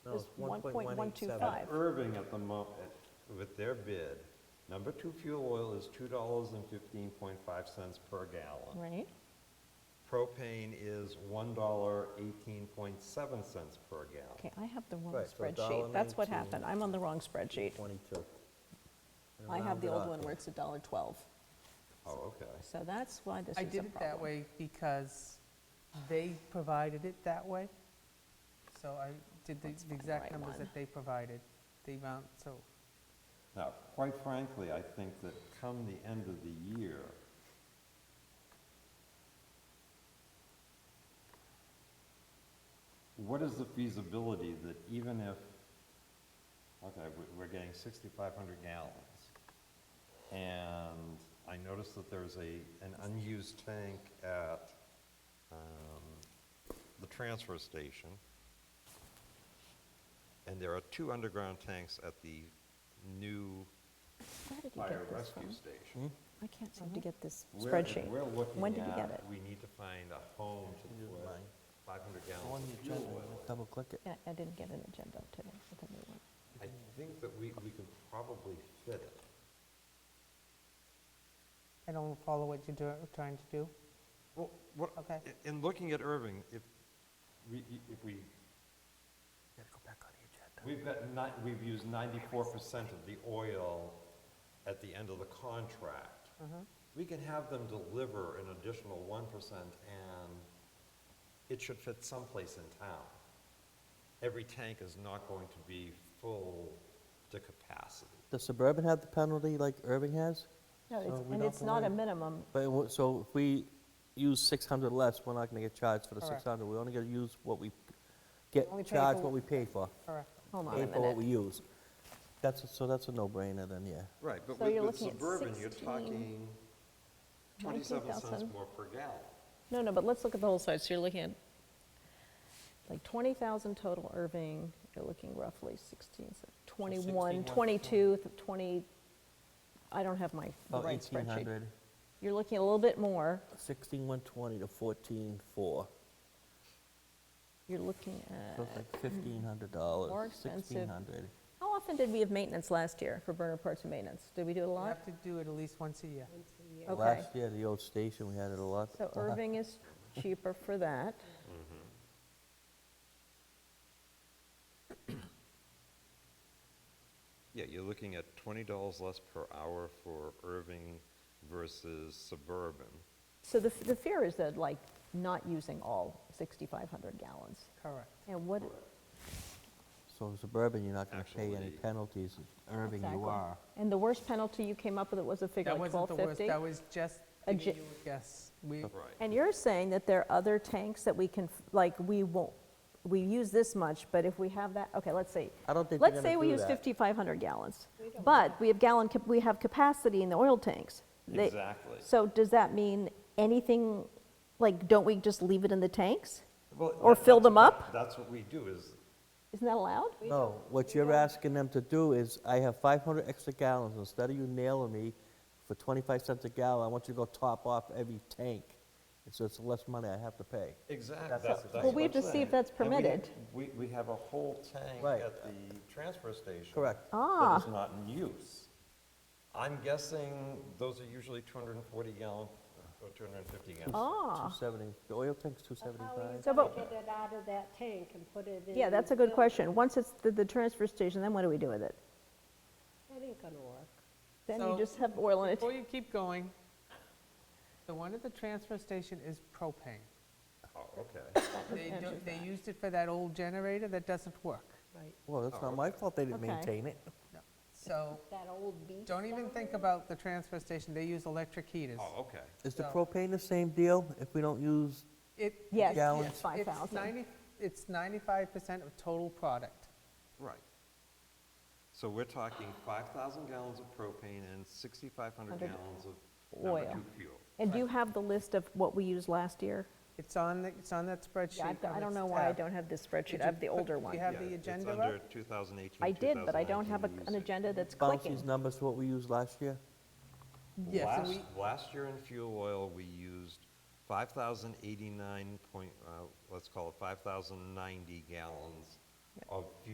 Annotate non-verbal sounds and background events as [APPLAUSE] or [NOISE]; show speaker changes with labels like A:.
A: No,
B: is
A: it's
B: 1.125.
A: 1.185.
C: Irving at the moment, with their bid, number two fuel oil is two dollars and fifteen point five cents per gallon.
B: right?
C: Propane is one dollar eighteen point seven cents per gallon.
B: Okay, I have the wrong
A: Right, so
B: spreadsheet. That's what
A: $1.19.
B: happened. I'm on the wrong spreadsheet.
A: 22.
B: I have
A: Round
B: the
A: it
B: old
A: up.
B: one where it's a dollar twelve.
C: Oh, okay.
B: So that's why this is
D: I
B: a problem.
D: did it that way because they provided it that way. So I did the
B: Let's
D: the
B: find the right
D: exact numbers
B: one.
D: that they provided, the amount, so,
C: Now, quite frankly, I think that come the end of the year, what is the feasibility that even if, okay, we- we're getting 6,500 gallons, and I noticed that there's a, an unused tank at um, the transfer station, and there are two underground tanks at the new
B: Where did you
C: fire
B: get this
C: rescue
B: from?
C: station.
B: I can't seem to get this
C: We're-
B: spreadsheet.
C: We're looking
B: When did you get
C: at,
B: it?
C: we need to find a home to put 500 gallons of fuel oil.
A: Double click it.
B: Yeah, I didn't get an agenda today with the new one.
C: I think that we, we could probably fit it.
D: I don't follow what you're do- trying to do.
C: Well, what,
D: Okay.
C: i- in looking at Irving, if we, if we,
A: Gotta go back on the agenda.
C: we've got, ni- we've used 94% of the oil at the end of the contract.
B: Mm-hmm.
C: We can have them deliver an additional 1% and it should fit someplace in town. Every tank is not going to be full to capacity.
E: Does Suburban have the penalty like Irving has?
B: No,
E: So
B: it's-
E: we
B: and
E: don't
B: it's not a
E: believe-
B: minimum.
E: But, it wo- so if we use 600 less, we're not going to get charged for the
D: Correct.
E: 600. We're only going to use what we, get
D: Only pay for
E: charged
D: what-
E: what we paid for.
D: Correct.
B: Hold on a
E: Pay for what we
B: minute.
E: use. That's, a- so that's a no-brainer then, yeah.
C: Right, but
B: So
C: with
B: you're
C: with
B: looking at
C: suburban, you're
B: 16,
C: talking 27 cents
B: 19,000.
C: more per gallon.
B: No, no, but let's look at the whole site. So you're looking at like 20,000 total Irving, you're looking roughly 16, so 21,
C: 16,
B: 22, th- 20, I don't have my the
E: About
B: right spreadsheet.
E: 1,800,
B: You're looking a little bit more.
E: 16,120 to 14,4.
B: You're looking
E: So
B: at,
E: it's like $1,500, 1,600.
B: expensive. how often did we have maintenance last year for burner parts and maintenance? Did we do it a
D: You
B: lot?
D: have to do it at least once a year.
B: Okay.
E: Last Uh-huh. year, the old station, we had it a lot.
B: So
E: [LAUGHS] a lot.
B: Irving is cheaper for that.
C: Yeah, you're looking at $20 less per hour for Irving versus suburban.
B: So the, f- the fear is that like not using all 6,500 gallons.
D: Correct.
B: And what,
E: So Suburban, you're not going to pay any
C: Actually-
E: penalties. Irving, you
B: Exactly.
E: are.
B: and the worst penalty you came up with it was a figure
D: That
B: like
D: wasn't the worst,
B: 1,250?
D: that was just
B: A
D: giving
B: ge-
D: you a guess. We,
B: And you're saying that there are other tanks that we can, f- like, we won't, we use this much, but if we have that, okay, let's see.
E: I don't think they're
B: Let's
E: gonna
B: say we
E: do
B: use
E: that.
B: 5,500 gallons, but we have gallon, cap- we have capacity in the oil tanks. They-
C: Exactly.
B: So does that mean anything, like, don't we just leave it in the tanks? Or fill them up?
C: That's what we do is,
B: Isn't that allowed?
E: No, what you're asking them to do is, I have 500 extra gallons, instead of you nailing me for 25 cents a gallon, I want you to go top off every tank. And so it's less money I have to pay.
C: exactly.
B: Well, we have to see if that's permitted.
C: We, we have a whole tank
E: Right.
C: at the transfer station.
E: Correct.
B: Ah.
C: That is not in use. I'm guessing those are usually 240 gallon or 250 gallon.
B: Ah,
E: 270, the oil tank's
F: How
E: 275.
F: are you
B: So, but-
F: going to get it out of that tank and put it in?
B: yeah, that's a
F: the
B: good question. Once it's the, the transfer station, then what do we do with it?
F: building? That ain't gonna work.
B: Then you
D: So-
B: just have oil in it.
D: Before you keep going, the one at the transfer station is
B: [LAUGHS]
D: propane.
C: Oh, okay.
D: They do- They used it for that old generator that doesn't work.
F: Right.
E: Well, that's not my fault they didn't
B: Okay.
E: maintain it.
D: So
F: That old beach.
D: don't even think about the transfer station, they use electric heaters.
C: Oh, okay.
E: Is the
D: So-
E: propane the same deal if we don't use,
D: It-
B: Yes,
E: Gallons.
B: it's
D: It's
B: 5,000.
D: 90 It's 95% of total product.
C: Right. So we're talking 5,000 gallons of propane and 6,500
B: Hundred
C: gallons of number
B: oil.
C: two fuel.
B: And do you have the list of what we used last year?
D: It's on, the- it's on that spreadsheet.
B: Yeah, I've got-
D: on
B: I don't
D: its
B: know why I
D: tab.
B: don't have this spreadsheet,
D: Did
B: I
D: you
B: have the
D: put-
B: older
D: do
B: one.
D: you have
C: Yeah,
D: the agenda
C: It's
D: up?
C: under 2018,
B: I did, but I don't have a-
C: 2019
B: an
C: usage.
B: agenda that's
E: bounce
B: clicking.
E: these numbers to what we used last year?
D: Yes,
C: Last,
D: and we-
C: last year in fuel oil, we used 5,089 point, uh, let's call it 5,090 gallons of fuel